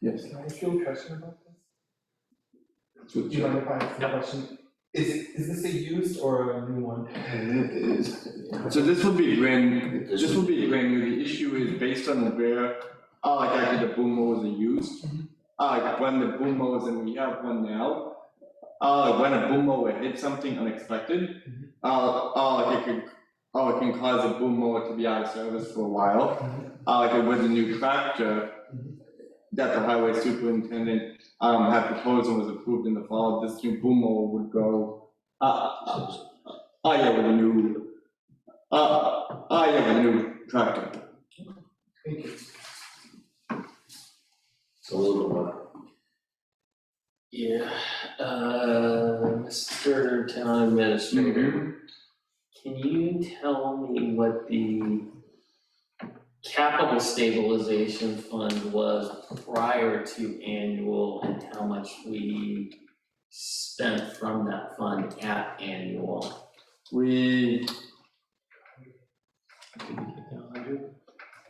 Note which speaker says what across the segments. Speaker 1: Yes,
Speaker 2: Can I ask you a question about this?
Speaker 1: so
Speaker 2: Do you
Speaker 1: it
Speaker 2: mind if I ask a question? Is, is this a used or a new one?
Speaker 1: is.
Speaker 3: So this would be brand, this would be brand new, the issue is based on where, uh, like actually the boom mowers are used.
Speaker 2: Mhm.
Speaker 3: Uh, like when the boom mowers, and we have one now, uh, like when a boom mower hits something unexpected,
Speaker 2: Mhm.
Speaker 3: uh, uh, like it could, uh, it can cause a boom mower to be out of service for a while.
Speaker 2: Mhm.
Speaker 3: Uh, like with the new tractor
Speaker 2: Mhm.
Speaker 3: that the highway superintendent, um, had proposed and was approved in the fall, this new boom mower would go, uh, uh, uh, yeah, with a new uh, I have a new tractor.
Speaker 2: Thank you.
Speaker 4: It's a little one. Yeah, uh, Mr. Town
Speaker 3: Mm-hmm.
Speaker 4: Administrator, can you tell me what the capital stabilization fund was prior to annual and how much we spent from that fund at annual?
Speaker 3: We,
Speaker 4: Hundred?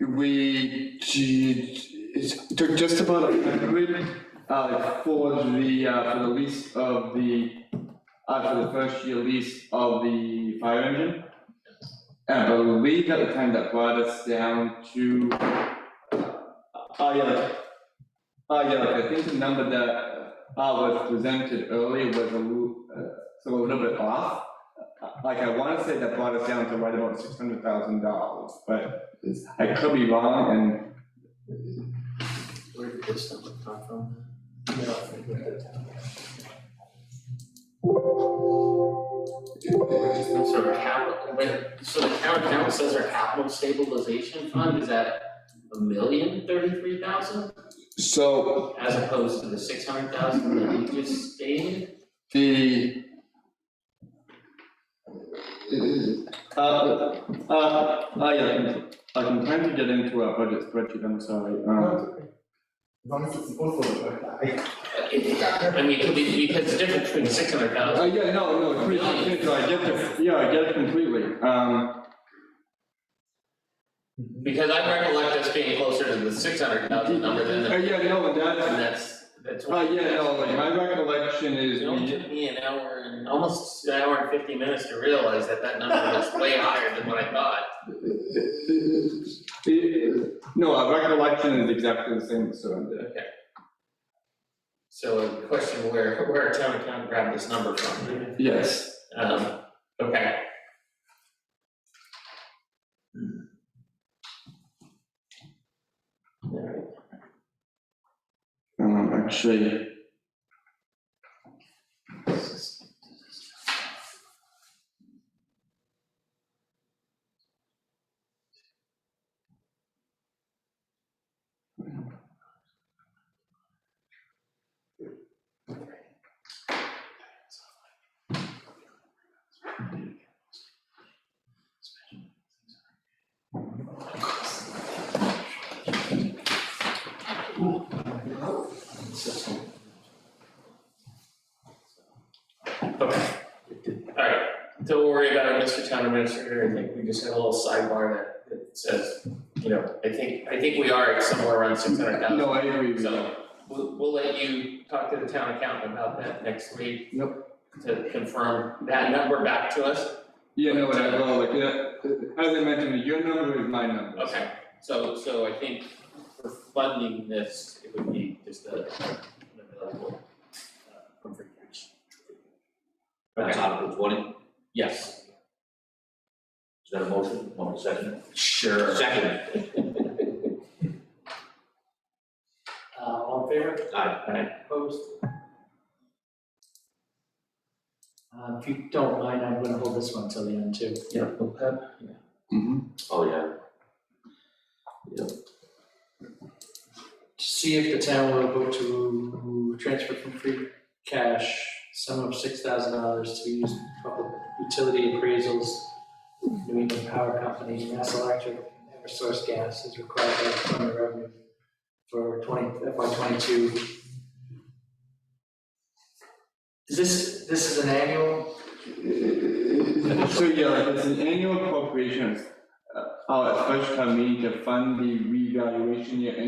Speaker 3: we, ju- it's, took just about a hundred, uh, for the, uh, for the lease of the, uh, for the first year lease of the fire engine. And I believe at the time that brought us down to, uh, yeah, like, uh, yeah, like, I think the number that, uh, was presented earlier was a little, uh, so a little bit off. Uh, like I wanna say that brought us down to right about six hundred thousand dollars, but it's- I could be wrong and
Speaker 4: Where did this number come from? So our capital, wait, so the town council says our capital stabilization fund is at a million thirty-three thousand?
Speaker 3: so
Speaker 4: As opposed to the six hundred thousand that you just stated?
Speaker 3: the uh, uh, uh, yeah, I'm- I'm trying to get into our budget spreadsheet, I'm sorry,
Speaker 2: No,
Speaker 3: um,
Speaker 2: it's okay. As long as it's supposed to look like that.
Speaker 4: Uh, it- I mean, it could be, because the difference between six hundred
Speaker 3: uh,
Speaker 4: thousand,
Speaker 3: yeah, no, no, it's pretty confusing, so I get the, yeah, I get it completely, um,
Speaker 4: because I recollect us being closer to the six hundred thousand number than
Speaker 3: uh,
Speaker 4: the,
Speaker 3: yeah, no,
Speaker 4: and
Speaker 3: that's,
Speaker 4: that's, that's.
Speaker 3: uh, yeah, no, like, my recollection is uh,
Speaker 4: It only
Speaker 3: we
Speaker 4: took me an hour and, almost an hour and fifty minutes to realize that that number was way higher than what I thought.
Speaker 3: uh, No, our recollection is exactly the same, so I'm there.
Speaker 4: So a question where, where town account grabbed this number from,
Speaker 3: Yes.
Speaker 4: um, okay. Alright,
Speaker 3: Um, actually,
Speaker 4: okay. Alright, don't worry about it, Mr. Town Administrator, I think we just had a little sidebar that, that says, you know, I think, I think we are at somewhere around six hundred thousand.
Speaker 3: no, I agree with you.
Speaker 4: So we'll, we'll let you talk to the town accountant about that next week.
Speaker 3: Yep.
Speaker 4: To confirm that number back to us.
Speaker 3: Yeah, no, and I will, like, yeah, as I mentioned, your number is my number.
Speaker 4: Okay, so, so I think for funding this, it would be just a, an available, uh, from free cash.
Speaker 5: That's
Speaker 4: Okay,
Speaker 5: Article twenty,
Speaker 4: yes.
Speaker 5: is that a motion, one second?
Speaker 4: Sure.
Speaker 5: Second,
Speaker 4: Uh, all in favor?
Speaker 5: aye,
Speaker 4: Opposed?
Speaker 6: Uh, if you don't mind, I'm gonna hold this one till the end too.
Speaker 4: Yeah, okay.
Speaker 3: Mhm.
Speaker 5: oh yeah,
Speaker 6: To see if the town will vote to transfer from free cash sum of six thousand dollars to use public utility appraisals, New England Power Company, Mass Electric, and Eversource Gas is required by the Department of Revenue for twenty, FY twenty-two. Is this, this is an annual?
Speaker 3: So, yeah, like, it's an annual appropriations, uh, uh, special town meeting to fund the revaluation year